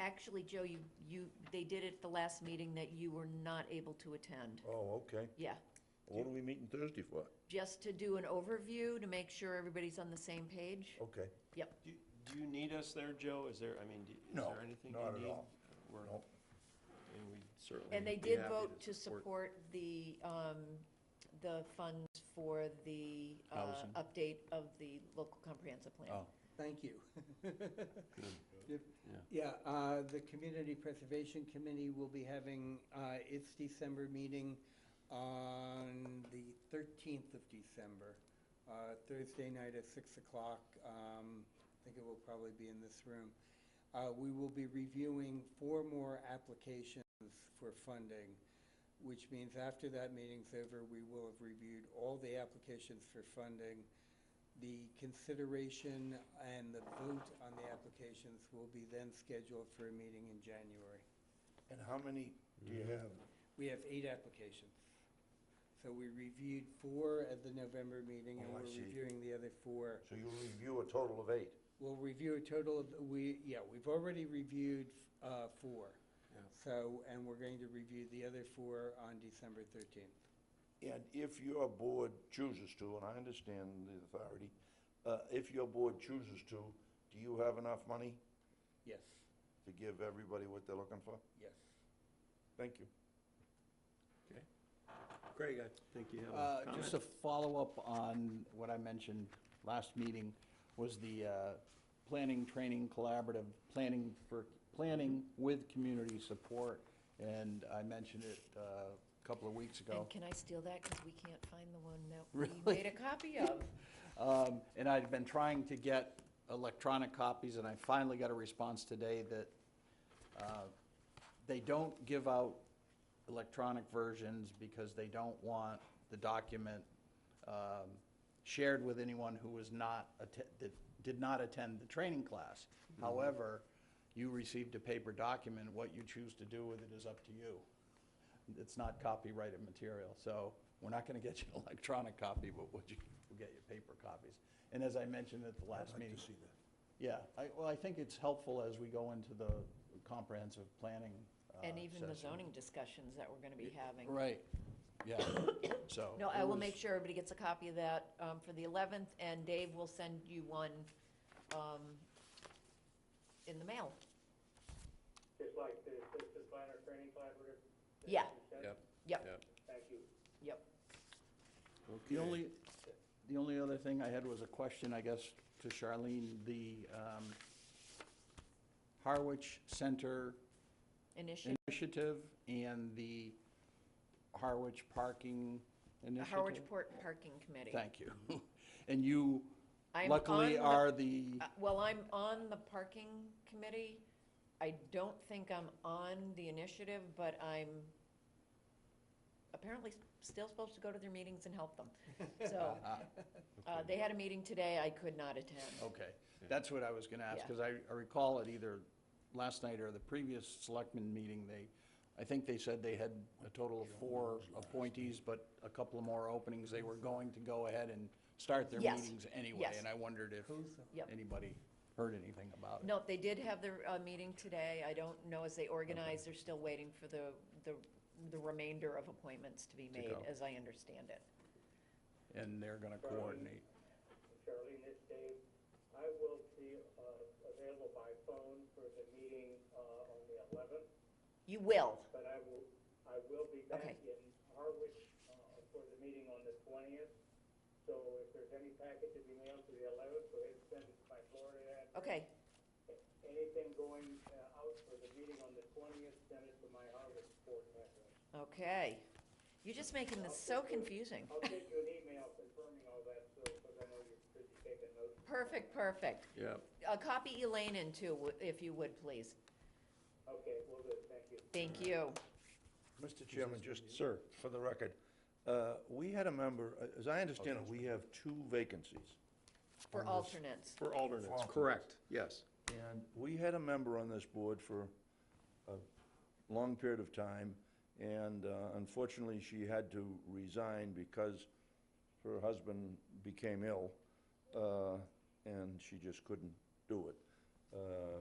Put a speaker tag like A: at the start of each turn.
A: actually, Joe, you, you, they did it at the last meeting that you were not able to attend.
B: Oh, okay.
A: Yeah,
B: What are we meeting Thursday for?
A: just to do an overview, to make sure everybody's on the same page.
C: Oh,
B: Okay.
A: Yep.
C: Do do you need us there, Joe? Is there, I mean, do- is
B: No,
C: there anything you need?
B: not at all.
C: We're-
B: No.
C: And we certainly.
A: And they
C: would be
A: did
C: happy
A: vote to
C: support-
A: support the, um, the funds for the, uh,
C: Housing.
A: update of the local comprehensive plan.
C: Oh.
D: Thank you. Yep.
C: Yeah.
D: Yeah, uh, the Community Preservation Committee will be having uh, its December meeting on the 13th of December, uh, Thursday night at 6 o'clock. Um, I think it will probably be in this room. Uh, We will be reviewing four more applications for funding, which means after that meeting's over, we will have reviewed all the applications for funding. The consideration and the vote on the applications will be then scheduled for a meeting in January.
B: And how many do you have?
D: We have eight applications. So we reviewed four at the November meeting, and
B: Oh, I
D: we're
B: see.
D: reviewing the other four.
B: So you review a total of eight.
D: We'll review a total of, we, yeah, we've already reviewed uh, four.
C: Yeah.
D: So, and we're going to review the other four on December 13th.
B: And if your board chooses to, and I understand the authority, uh, if your board chooses to, do you have enough money
D: Yes,
B: to give everybody what they're looking for?
D: yes.
B: Thank you.
C: Craig, I think you have
E: Uh,
C: a comment.
E: Just a follow-up on what I mentioned last meeting, was the uh, planning, training, collaborative, planning for, planning with community support, and I mentioned it uh, a couple of weeks ago.
A: And can I steal that, because we can't find the one that we
E: Really?
A: made a copy of?
E: Um, And I'd been trying to get electronic copies, and I finally got a response today that uh, they don't give out electronic versions because they don't want the document um, shared with anyone who was not, atte- that did not attend the training class. However, you received a paper document, what you choose to do with it is up to you. It's not copyrighted material, so we're not gonna get you an electronic copy, but would you, we'll get you paper copies. And as I mentioned at the last meeting. Yeah, I, well, I think it's helpful as we go into the comprehensive planning. uh,
A: And even the
E: session.
A: zoning discussions that we're gonna be having.
E: Right, yeah, so.
A: No, I
E: it
A: will
E: was-
A: make sure everybody gets a copy of that um, for the 11th, and Dave will send you one um, in the mail.
F: Just like the assistant planner training collaborative? that
A: Yeah.
F: you sent?
C: Yep.
A: Yep.
F: Thank you.
A: Yep.
E: The only, the only other thing I had was a question, I guess, to Charlene, the um, Harwich Center
A: Initiative,
E: Initiative and the Harwich Parking
A: the
E: Initiative.
A: Howard Port Parking Committee.
E: Thank you. And you
A: I'm
E: luckily
A: on the-
E: are the,
A: Uh, Well, I'm on the parking committee. I don't think I'm on the initiative, but I'm apparently s- still supposed to go to their meetings and help them. So, uh, they had a meeting today, I could not attend.
E: okay, that's what I was gonna ask,
A: Yeah.
E: because I I recall at either last night or the previous selectmen meeting, they, I think they said they had a total of four appointees, but a couple of more openings, they were going to go ahead and start their
A: Yes,
E: meetings anyway,
A: yes.
E: and I wondered if
A: Yep.
E: anybody heard anything about it.
A: No, they did have their uh, meeting today. I don't know as they organize, they're still waiting for the, the the remainder of appointments to be made,
E: go.
A: as I understand it.
E: And they're gonna coordinate.
F: Charlene, this Dave. I will be uh, available by phone for the meeting uh, on the 11th,
A: You will,
F: but I will, I will be back
A: Okay.
F: in Harwich uh, for the meeting on the 20th. So if there's any packet to be mailed to the 11th, go ahead and send it to my Florida address.
A: okay,
F: Anything going uh, out for the meeting on the 20th, send it to my Harwich board address.
A: okay. You're just making this so confusing.
F: I'll send you an email confirming all that, so, because I know you're busy taking notes.
A: Perfect, perfect.
C: Yeah,
A: Uh, Copy Elaine in too, w- if you would, please.
F: Okay, well, good, thank you.
A: Thank you.
B: Mr. Chairman, just, sir, for the record, uh, we had a member, uh, as I understand it, we have two vacancies.
A: For alternates,
C: for alternates,
B: alternates.
C: correct, yes.
B: And we had a member on this board for a long period of time, and uh, unfortunately, she had to resign because her husband became ill, uh, and she just couldn't do it. Uh,